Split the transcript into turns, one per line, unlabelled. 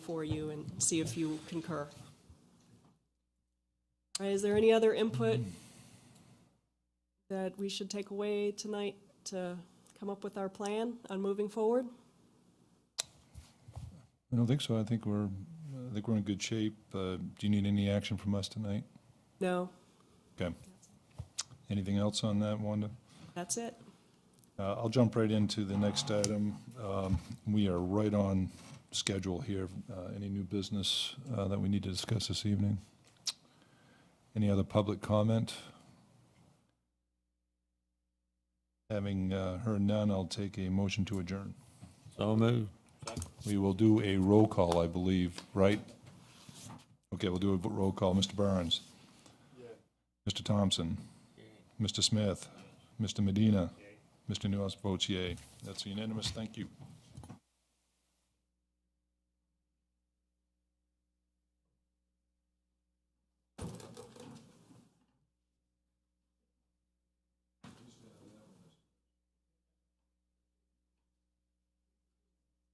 for you and see if you concur. All right, is there any other input that we should take away tonight to come up with our plan on moving forward?
I don't think so. I think we're, I think we're in good shape. Uh, Do you need any action from us tonight?
No,
Okay. Anything else on that, Wanda?
that's it.
Uh, I'll jump right into the next item. Um, We are right on schedule here. Uh, Any new business uh, that we need to discuss this evening? Any other public comment? Having uh, heard none, I'll take a motion to adjourn.
So moved.
We will do a roll call, I believe, right? Okay, we'll do a roll call. Mr. Burns? Mr. Thompson? Mr. Smith? Mr. Medina? Mr. Nuance votes yea. That's unanimous. Thank you.